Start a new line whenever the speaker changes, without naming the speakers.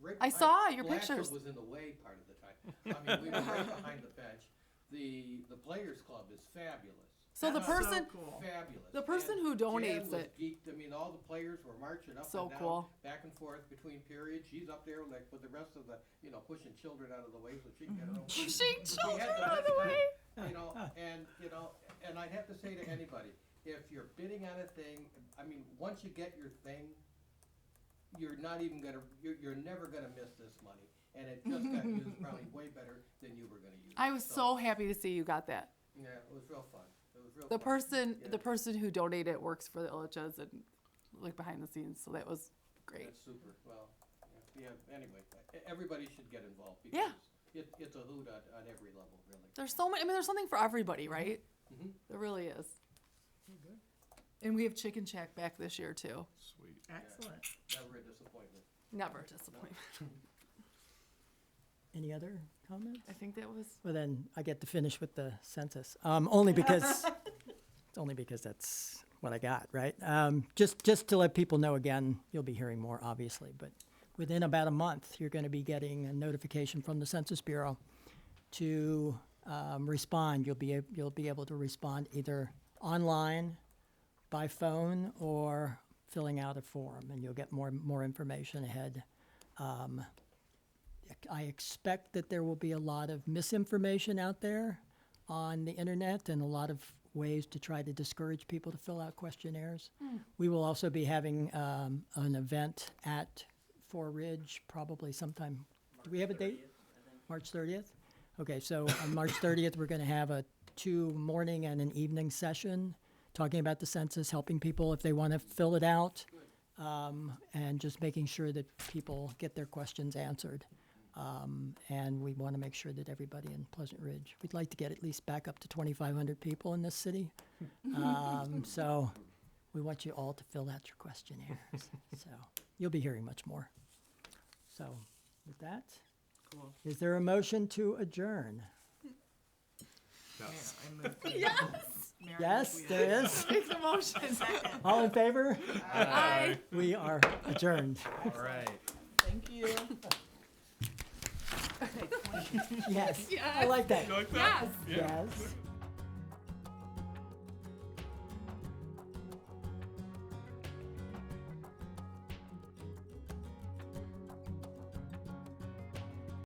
Rick.
I saw your
Blatcher
pictures.
was in the way part of the time. I mean, we were right behind the bench. The, the Players Club is fabulous.
So the
Uh,
person-
cool.
Fabulous.
the person
And
who
Jan
donates
was
it.
Geeked. I mean, all the players were marching up
So
and down,
cool.
back and forth between periods. She's up there like with the rest of the, you know, pushing children out of the way so she can get her own.
Pushing
We
children
had the
out of
best
the way.
time, You know, and, you know, and I'd have to say to anybody, if you're bidding on a thing, I mean, once you get your thing, you're not even gonna, you're, you're never gonna miss this money. And it just got used probably way better than you were gonna use. it.
I was so happy to see you got that.
Yeah, it was real fun. It was real
The
fun.
person,
Yeah.
the person who donated works for the Illiches and like behind the scenes, so that was great.
That's super, well, yeah, yeah, anyway, e- everybody should get involved because
Yeah.
it, it's a hoot on, on every level, really.
There's so many. I mean, there's something for everybody, right?
Mhm.
There really is. And we have Chicken Shack back this year too.
Sweet.
Excellent.
Never a disappointment.
Never a disappointment.
Any other comments?
I think that was
Well, then I get to finish with the census, um, only because, it's only because that's what I got, right? Um, just, just to let people know again, you'll be hearing more, obviously, but within about a month, you're going to be getting a notification from the Census Bureau to um, respond. You'll be, ab- you'll be able to respond either online, by phone, or filling out a form, and you'll get more, more information ahead. I expect that there will be a lot of misinformation out there on the internet and a lot of ways to try to discourage people to fill out questionnaires. We will also be having um, an event at Four Ridge probably sometime. Do we have a date? March 30th? Okay, so on March 30th, we're going to have a two morning and an evening session talking about the census, helping people if they want to fill it out um, and just making sure that people get their questions answered. Um, and we want to make sure that everybody in Pleasant Ridge, we'd like to get at least back up to 2,500 people in this city. Um, so we want you all to fill out your questionnaires. so you'll be hearing much more. So with that,
Cool.
is there a motion to adjourn?
Yes.
Yes, there is.
Take the motion.
All in favor?
Aye.
We are adjourned.
All right.
Thank you. yes. I like that.
Yes.
Yes.